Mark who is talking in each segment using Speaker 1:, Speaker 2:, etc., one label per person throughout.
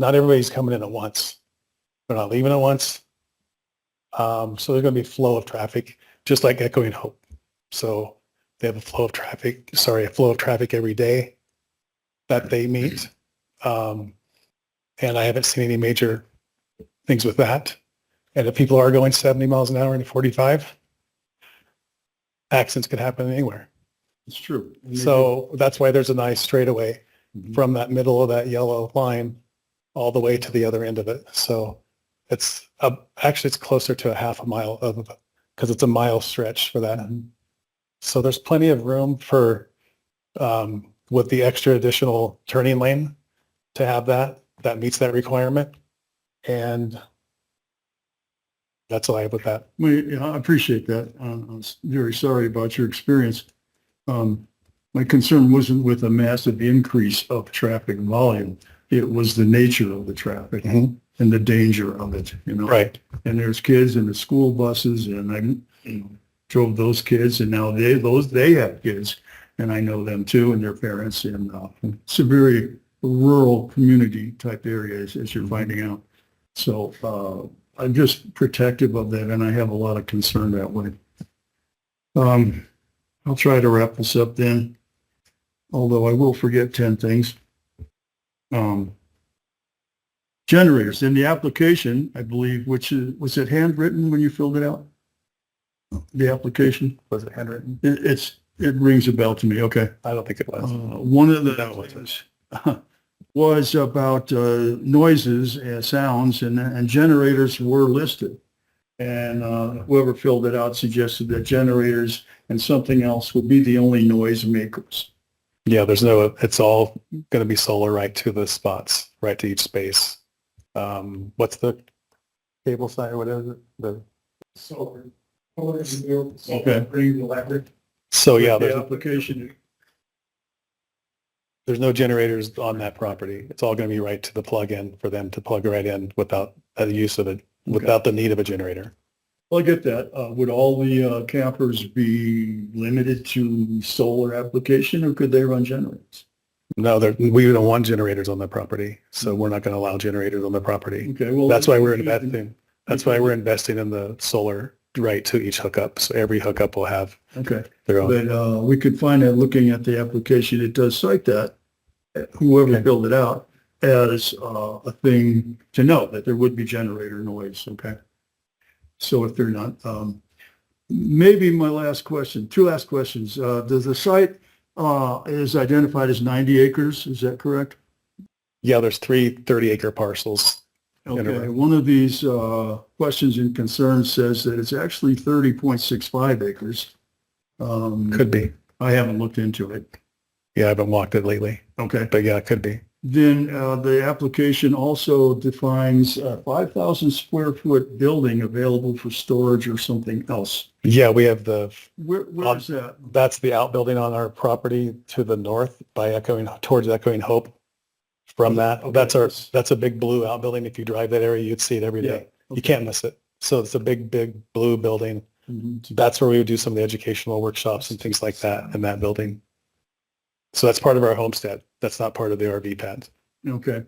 Speaker 1: not everybody's coming in at once. They're not leaving at once. Um, so there's going to be a flow of traffic, just like Echoing Hope. So they have a flow of traffic, sorry, a flow of traffic every day that they meet. Um, and I haven't seen any major things with that. And if people are going 70 miles an hour and 45, accidents could happen anywhere.
Speaker 2: It's true. And they do.
Speaker 1: So that's why there's a nice straightaway
Speaker 2: Mhm.
Speaker 1: from that middle of that yellow line all the way to the other end of it. So it's uh, actually it's closer to a half a mile of because it's a mile stretch for that.
Speaker 2: Mhm.
Speaker 1: So there's plenty of room for um, with the extra additional turning lane to have that that meets that requirement, and that's all I have with that.
Speaker 2: Well, yeah, I appreciate that. Um, I'm s- very sorry about your experience. Um, My concern wasn't with a massive increase of traffic volume. It was the nature of the traffic
Speaker 1: Mhm.
Speaker 2: and the danger of it, you know?
Speaker 1: Right.
Speaker 2: and there's kids in the school buses and I you know, drove those kids and now they, those, they have kids. And I know them too and their parents and uh, it's a very rural community type area as, as you're finding out. So uh, I'm just protective of that and I have a lot of concern that way. Um, I'll try to wrap this up then, although I will forget 10 things. Um, generators in the application, I believe, which is, was it handwritten when you filled it out? The application?
Speaker 1: Was it handwritten?
Speaker 2: It, it's, it rings a bell to me, okay.
Speaker 1: I don't think it was.
Speaker 2: Uh, one of the
Speaker 1: That was
Speaker 2: things was about uh, noises and sounds and, and generators were listed. And uh, whoever filled it out suggested that generators and something else would be the only noise makers.
Speaker 1: Yeah, there's no, it's all going to be solar right to the spots, right to each space. Um, what's the cable side, what is it? The,
Speaker 2: Solar. Okay.
Speaker 1: Okay. so Oh, yeah,
Speaker 2: The
Speaker 1: there's,
Speaker 2: application,
Speaker 1: there's no generators on that property. It's all going to be right to the plug-in for them to plug right in without the use of it, without the need of a generator.
Speaker 2: Well, I get that. Uh, would all the uh, campers be limited to solar application or could they run generators?
Speaker 1: No, there, we don't want generators on the property, so we're not going to allow generators on the property.
Speaker 2: Okay, well.
Speaker 1: That's why we're investing, that's why we're investing in the solar right to each hookup. So every hookup will have
Speaker 2: Okay,
Speaker 1: their own.
Speaker 2: but, uh, we could find that looking at the application, it does cite that, whoever
Speaker 1: Okay.
Speaker 2: filled it out, as, uh, a thing to know that there would be generator noise, okay? So if they're not, um, maybe my last question, two last questions. Uh, does the site, uh, is identified as 90 acres, is that correct?
Speaker 1: Yeah, there's three 30-acre parcels in a
Speaker 2: Okay,
Speaker 1: row.
Speaker 2: one of these uh, questions and concerns says that it's actually 30.65 acres. Um,
Speaker 1: Could be.
Speaker 2: I haven't looked into it.
Speaker 1: Yeah, I haven't walked it lately,
Speaker 2: Okay.
Speaker 1: but yeah, it could be.
Speaker 2: Then uh, the application also defines a 5,000 square foot building available for storage or something else.
Speaker 1: Yeah, we have the,
Speaker 2: Where, where is that?
Speaker 1: that's the outbuilding on our property to the north by echoing, towards Echoing Hope. From that, that's our, that's a big blue outbuilding. If you drive that area, you'd see it every day. You can't miss it. So it's a big, big blue building.
Speaker 2: Mhm.
Speaker 1: That's where we would do some of the educational workshops and things like that in that building. So that's part of our homestead. That's not part of the RV pad.
Speaker 2: Okay.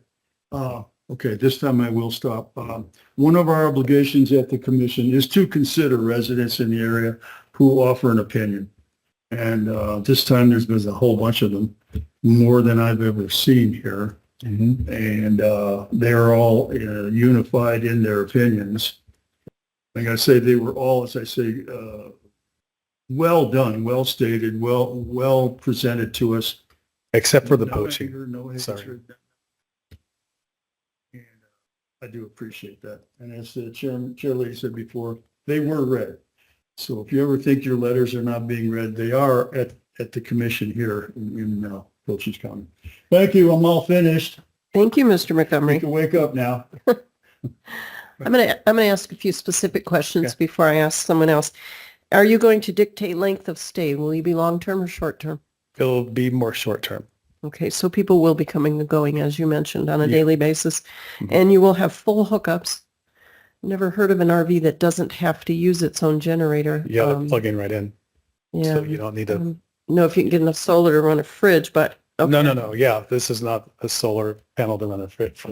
Speaker 2: Uh, Okay, this time I will stop. Um, One of our obligations at the commission is to consider residents in the area who offer an opinion. And uh, this time, there's been a whole bunch of them, more than I've ever seen here. And uh, they're all uh, unified in their opinions. Like I say, they were all, as I say, uh, well done, well stated, well, well presented to us.
Speaker 1: Except for the
Speaker 2: No
Speaker 1: poaching.
Speaker 2: anger, no
Speaker 1: Sorry.
Speaker 2: hatred. And uh, I do appreciate that. And as the chairman, chair lady said before, they were read. So if you ever think your letters are not being read, they are at, at the commission here in, in uh, Wiltshire's County. Thank you. I'm all finished.
Speaker 3: Thank you, Mr.
Speaker 2: You
Speaker 3: Montgomery.
Speaker 2: can wake up now.
Speaker 3: I'm going to, I'm going to ask a few specific questions before I ask someone else. Are you going to dictate length of stay? Will you be long-term or short-term?
Speaker 1: It'll be more short term.
Speaker 3: Okay, so people will be coming and going, as you mentioned, on a
Speaker 1: Yeah.
Speaker 3: daily basis,
Speaker 1: Mhm.
Speaker 3: and you will have full hookups. Never heard of an RV that doesn't have to use its own generator.
Speaker 1: Yeah, they're
Speaker 3: Um,
Speaker 1: plugging right in.
Speaker 3: Yeah.
Speaker 1: So you don't need to
Speaker 3: Um, No, if you can get enough solar to run a fridge, but.
Speaker 1: No,
Speaker 3: okay.
Speaker 1: no, no. Yeah, this is not a solar panel to run a fridge.